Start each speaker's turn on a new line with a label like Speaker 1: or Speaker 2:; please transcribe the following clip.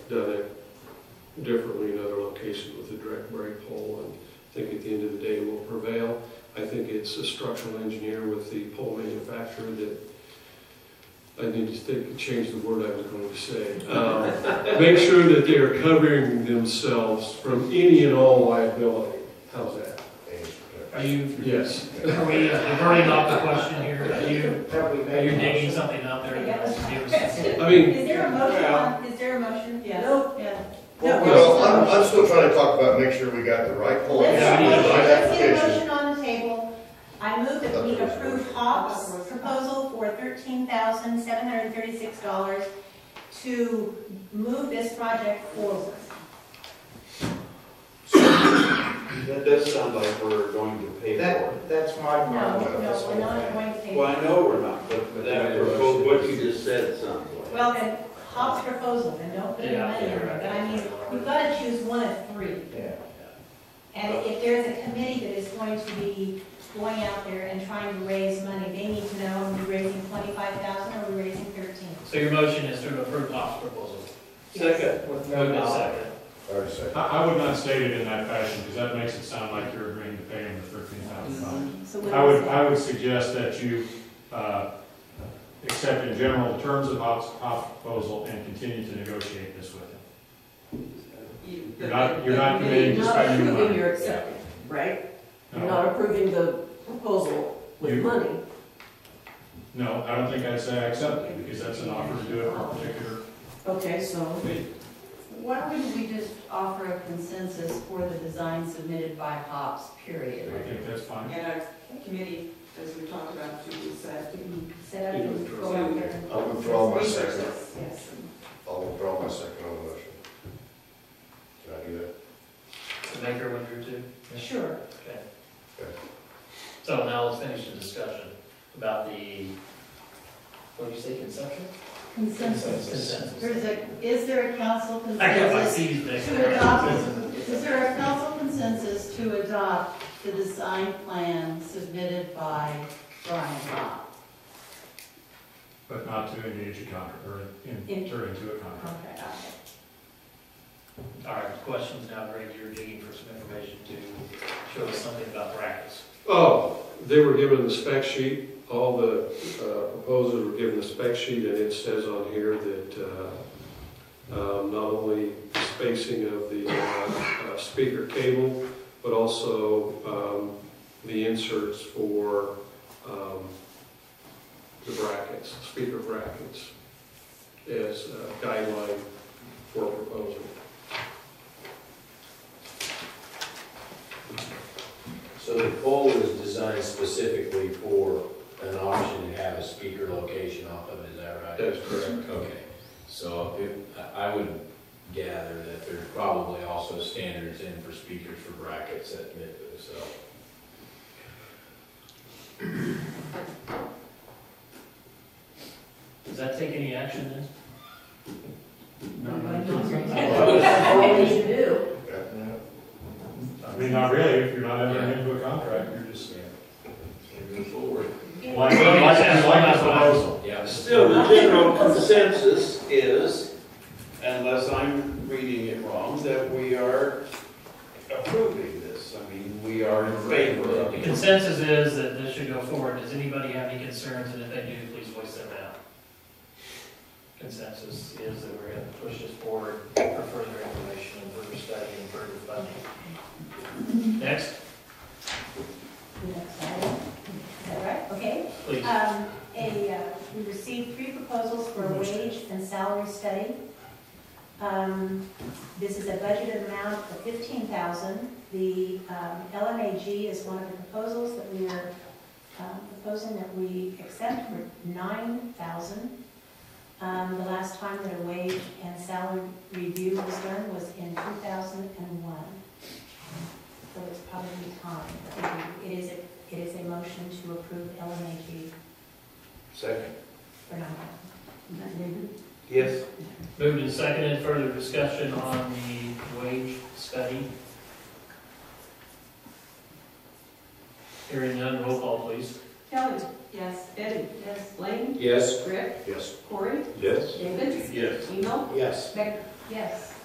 Speaker 1: done it differently in other locations with a direct brake pole, and I think at the end of the day will prevail. I think it's a structural engineer with the pole manufacturer that, I need to think, change the word I was going to say. Um, Make sure that they are covering themselves from any and all liability. How's that?
Speaker 2: Are you,
Speaker 1: Yes.
Speaker 2: are we uh, diverting off the question here? Are you, are you digging something up there? that was- it was-
Speaker 1: I mean,
Speaker 3: Is there a motion on, is there a motion? Yes. No. No.
Speaker 4: Well, I'm, I'm still trying to talk about, make sure we got the right poll.
Speaker 3: Let's
Speaker 2: Yeah,
Speaker 3: get
Speaker 2: I
Speaker 3: a
Speaker 2: need a
Speaker 3: motion,
Speaker 4: Right
Speaker 3: let's get a
Speaker 4: application.
Speaker 3: motion on the table. I move that we approve Hobbs' proposal for thirteen thousand seven hundred thirty-six dollars to move this project forward.
Speaker 5: That does sound like we're going to pay for
Speaker 6: That,
Speaker 5: it.
Speaker 6: that's my
Speaker 3: No, no, we're not
Speaker 6: problem.
Speaker 3: going to pay.
Speaker 5: Well, I know we're not, but that, proposal- what you just said sounds like.
Speaker 3: Well, then, Hobbs' proposal, then don't put any
Speaker 2: Yeah,
Speaker 3: money in
Speaker 2: yeah,
Speaker 3: it,
Speaker 2: right.
Speaker 3: but I mean, we've got to choose one of three.
Speaker 6: Yeah.
Speaker 3: And if there's a committee that is going to be going out there and trying to raise money, they need to know, are we raising twenty-five thousand or are we raising thirteen?
Speaker 2: So your motion is to approve Hoff's proposal?
Speaker 6: With
Speaker 5: Second.
Speaker 2: Moved
Speaker 6: no
Speaker 2: in
Speaker 6: dollar.
Speaker 2: second.
Speaker 4: All right, second.
Speaker 7: I, I would not state it in that fashion, because that makes it sound like you're agreeing to pay him the thirteen thousand dollars.
Speaker 3: So
Speaker 8: Mm-hmm.
Speaker 3: what
Speaker 7: I would,
Speaker 3: is it?
Speaker 7: I would suggest that you, uh, accept in general the terms of Hoff's, Hoff's proposal and continue to negotiate this with him. You're not, you're not committing to
Speaker 9: Not
Speaker 7: spending the
Speaker 9: approving
Speaker 7: money.
Speaker 9: your acceptance, right? You're
Speaker 7: No,
Speaker 9: not approving the proposal with
Speaker 7: You-
Speaker 9: money.
Speaker 7: no, I don't think I'd say I accept it, because that's an offer to do it for a particular
Speaker 9: Okay, so,
Speaker 7: fee.
Speaker 8: Why wouldn't we just offer a consensus for the design submitted by Hobbs,
Speaker 7: I
Speaker 8: period?
Speaker 7: think that's fine.
Speaker 10: And a committee, as we talked about, to set.
Speaker 3: Set up and go out there. and-
Speaker 4: I'll withdraw my second.
Speaker 10: Yes.
Speaker 4: I'll withdraw my second on the motion. Can I do that?
Speaker 2: The maker withdrew too?
Speaker 3: Sure.
Speaker 2: Okay.
Speaker 4: Okay.
Speaker 2: So now let's finish the discussion about the, what did you say, conception?
Speaker 8: Consensus. There's
Speaker 2: Consensus.
Speaker 8: a, is there a council
Speaker 2: I got my
Speaker 8: consensus
Speaker 2: C's mixed
Speaker 8: to
Speaker 2: up.
Speaker 8: adopt, is there a council consensus to adopt the design plan submitted by Brian Hobbs?
Speaker 7: But not to engage a contract, or enter into a contract.
Speaker 8: Okay.
Speaker 2: All right, questions now, Greg, you're digging for some information to show us something about brackets.
Speaker 1: Oh, they were given the spec sheet, all the uh, proposals were given the spec sheet, and it says on here that uh, um, not only spacing of the uh, uh, speaker cable, but also um, the inserts for um, the brackets, speaker brackets, as a guideline for proposal.
Speaker 5: So the pole is designed specifically for an option to have a speaker location off of, it, is that right?
Speaker 1: That is correct.
Speaker 5: Okay, so if- I I would gather that there's probably also standards in for speakers for brackets at MIPU, so.
Speaker 2: Does that take any action then?
Speaker 7: No,
Speaker 9: Nobody
Speaker 7: no,
Speaker 9: knows
Speaker 7: no.
Speaker 9: right now. What we should do.
Speaker 7: I mean, not really, if you're not entering into a contract, you're just,
Speaker 5: Moving forward.
Speaker 7: like, like, like the proposal.
Speaker 5: Yeah.
Speaker 6: Still, the general
Speaker 5: consensus is, unless I'm reading it wrong, that we are approving this. I mean, we are in favor of
Speaker 2: The consensus is that this should go forward. Does anybody have any concerns? And if they do, please voice them out. Consensus is that we're going to push this forward for further information and further study and further funding. Next,
Speaker 3: Next item. Is that right? Okay.
Speaker 2: please.
Speaker 3: Um, a, uh, we received three proposals for a wage and salary study. Um, this is a budgeted amount of fifteen thousand. The, um, LMAG is one of the proposals that we are, um, proposing that we accept for nine thousand. Um, the last time that a wage and salary review was done was in two thousand and one. So it's probably time. It is, a- it is a motion to approve LMAG
Speaker 5: Second.
Speaker 3: for nine
Speaker 5: Yes.
Speaker 2: Moved and seconded, further discussion on the wage study. Hearing none, roll call please.
Speaker 10: Kelly,
Speaker 8: Yes.
Speaker 10: Eddie, yes, Blaine,
Speaker 5: Yes.
Speaker 10: Rick,
Speaker 4: Yes.
Speaker 10: Corey,
Speaker 4: Yes.
Speaker 10: David,
Speaker 5: Yes.
Speaker 10: Eno,
Speaker 5: Yes.
Speaker 10: Becker.
Speaker 3: Yes.